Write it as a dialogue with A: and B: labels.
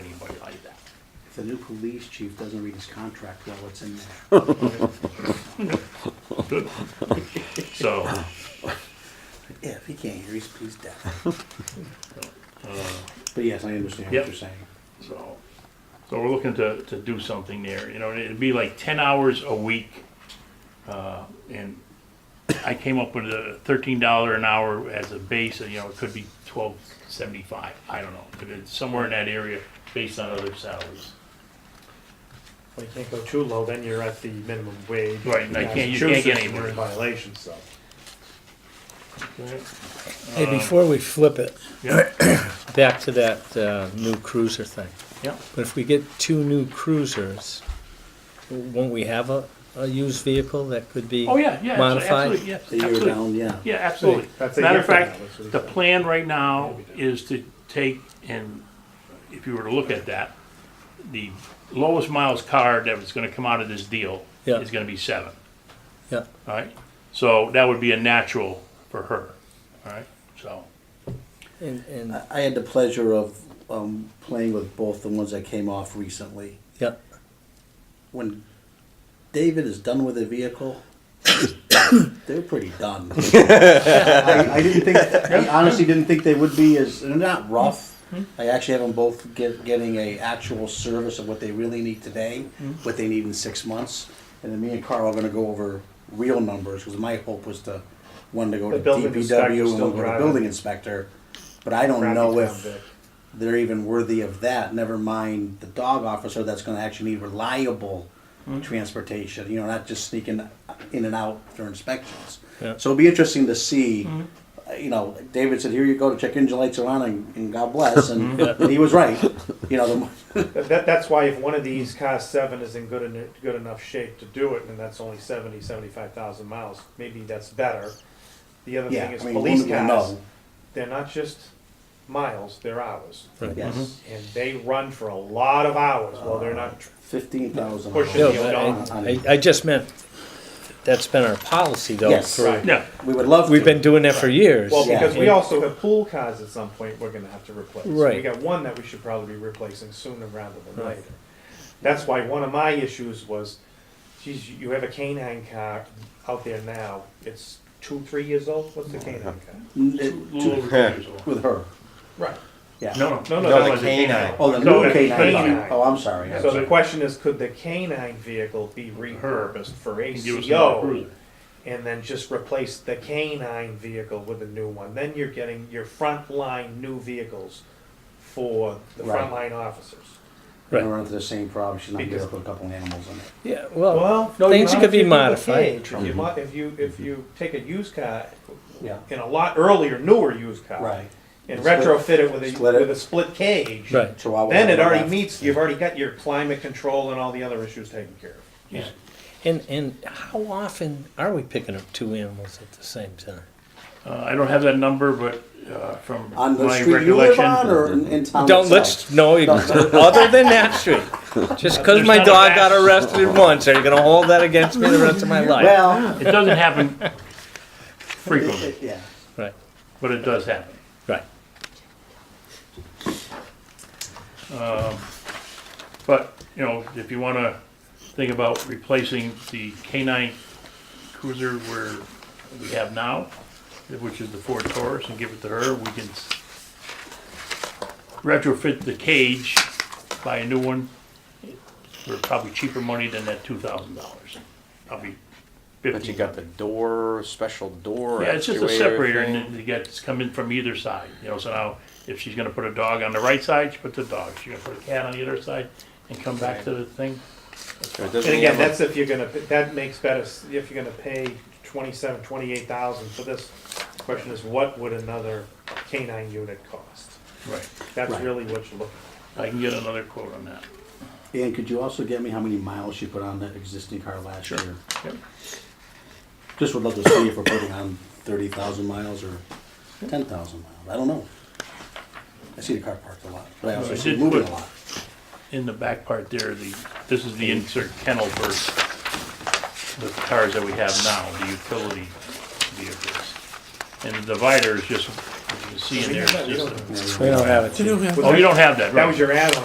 A: the new police chief doesn't read his contract well, it's in there.
B: So,
A: If he can't hear, he's, he's deaf. But yes, I understand what
B: Uh, Yep.
A: you're saying.
B: so, so we're looking to, to do something there, you know, and it'd be like ten hours a week. Uh, and I came up with a thirteen dollar an hour as a base, and you know, it could be twelve seventy-five, I don't know, but it's somewhere in that area based on other salaries.
C: Well, you can't go too low, then you're at the minimum wage.
B: Right, and I can't- you can't get
C: Massachusetts, and you're in
B: anywhere.
C: Violation, so.
D: Hey, before we flip it,
B: Yeah,
D: back to that uh, new cruiser thing.
B: yeah,
D: But if we get two new cruisers, won't we have a, a used vehicle that could be?
B: oh, yeah, yeah, abso-
D: Modified?
B: absolutely, yeah,
A: The year
B: absolutely.
A: down, yeah.
B: Yeah, absolutely.
C: That's a
B: Matter of
C: year from
B: fact,
C: now, that's what he
B: the
C: said.
B: plan right now is to take and, if you were to look at that, the lowest miles card that was gonna come out of this deal
D: Yeah.
B: is gonna be seven,
D: Yeah,
B: all right? So that would be a natural for her, all right? So,
D: and, and,
C: Uh,
A: I- I had the pleasure of um, playing with both the ones that came off recently.
D: yeah,
A: When David is done with a vehicle, they're pretty done. I, I didn't think. I honestly didn't think they would be as. They're not rough.
C: Hmm.
A: I actually have them both get, getting a actual service of what they really need today,
C: Hmm.
A: what they need in six months, and then me and Carl are going to go over real numbers because my hope was to one to go
C: The
A: to
C: building inspector's
A: DPW and
C: still
A: one go to
C: driving.
A: building inspector, but I don't
C: Crappy
A: know
C: town,
A: if
C: Vic.
A: they're even worthy of that. Never mind the dog officer that's going to actually need reliable
D: Hmm.
A: transportation. You know, not just sneaking in and out for inspections.
D: Yeah. Hmm.
A: So it'll be interesting to see. uh, You know, David said, "Here you go. Check engine lights are on, and, and God bless." And,
D: Hmm.
A: and he was right. You know, the, mo-
C: That, that- that's why if one of these cars seven is in good, en- good enough shape to do it, and that's only seventy, seventy-five thousand miles, maybe that's better. The other
A: yeah.
C: thing is
A: I mean,
C: police
A: women will
C: cars,
A: know.
C: they're not just miles, they're hours.
D: right. Mm-hmm.
A: Yes,
C: And they run for a lot of hours while they're not, tr-
A: fifteen thousand.
C: Pushing
D: No,
C: the
D: but
C: old
D: I, I- I just meant, that's been our policy though.
A: Yes.
D: for-
C: Right.
B: yeah,
A: We would love.
D: We've
A: to.
D: been doing that for years.
C: well, because we
D: And-
C: also have pool cars at some point we're gonna have to replace. We
D: Right.
C: got one that we should probably be replacing sooner rather than later. That's why one of my issues was, geez, you have a canine car out there now, it's two, three years old, what's the canine car?
A: Mm,
B: a
A: it-
B: little
A: to-
B: over two years old.
A: with her.
C: Right.
A: Yeah.
B: No, no.
C: No, no,
E: No,
C: that
E: the
C: was a
E: canine.
A: Oh, the
B: No,
A: new
B: it's
A: K9.
C: canine.
A: Oh, I'm sorry. I'm
C: So
A: sorry.
C: the question is, could the canine vehicle be repurposed for
B: Give us another
C: ACO?
B: cruiser.
C: And then just replace the canine vehicle with a new one, then you're getting your frontline new vehicles for the
A: Right.
C: frontline officers.
A: We're gonna
D: Right.
A: run into the same problem. She's not
C: Because-
A: gonna put a couple animals in it.
D: Yeah,
C: Well,
D: well,
C: no,
D: things
C: you
D: could be
C: might have to
D: modified.
C: think of the cage. If you mo- If you, if you take a used car,
A: Yeah.
C: in a lot earlier, newer used car.
A: Right.
C: And
A: Split-
C: retrofit it with a,
A: split it.
C: with a split cage.
D: Right.
A: Chihuahua
C: Then
A: on
C: it
A: the
C: already
A: left.
C: meets, you've already got your climate control and all the other issues taken care of.
B: Yeah.
D: And, and how often are we picking up two animals at the same time?
B: Uh, I don't have that number, but, uh, from
A: On the
B: my
A: street you live on
B: recollection.
A: or in, in town
D: Don't,
A: itself?
D: let's, no, you- other than that street. Just because
B: There's
D: my
B: not a
D: dog
B: back-
D: got arrested once, are you gonna hold that against me the rest of my life?
A: Well,
B: It doesn't happen
A: it-
B: frequently,
A: it- yeah.
D: Right,
B: but it does happen.
D: right.
B: Um, But, you know, if you wanna think about replacing the K-9 cruiser where we have now, which is the Ford Taurus, and give it to her, we can s- retrofit the cage, buy a new one, for probably cheaper money than that two thousand dollars. Probably
E: But you
B: fifteen.
E: got the door, special door.
B: Yeah, it's just a
E: actuator
B: separator, and
E: thing.
B: then you get, it's coming from either side, you know, so now, if she's gonna put a dog on the right side, she puts a dog, she's gonna put a cat on the other side, and come back to the thing,
E: So it doesn't
C: And again,
E: have a-
C: that's if you're gonna, that makes better, s- if you're gonna pay twenty-seven, twenty-eight thousand for this. Question is, what would another canine unit cost?
B: right.
C: That's
A: Right.
C: really what you're looking
B: I can get another quote on that.
A: And could you also get me how many miles you put on that existing car last year?
B: Yep.
A: Just would love to see if we're putting on thirty thousand miles or ten thousand miles. I don't know. I see the car parked a lot, but I also
B: I
A: see it
B: did
A: moving
B: put-
A: a lot.
B: In the back part there, the, this is the insert kennel for the cars that we have now, the utility vehicles. And the divider is just, you can see in there, it's just a-
D: We don't have it.
B: oh, you don't have that,
C: That was
B: right?
C: your add-on.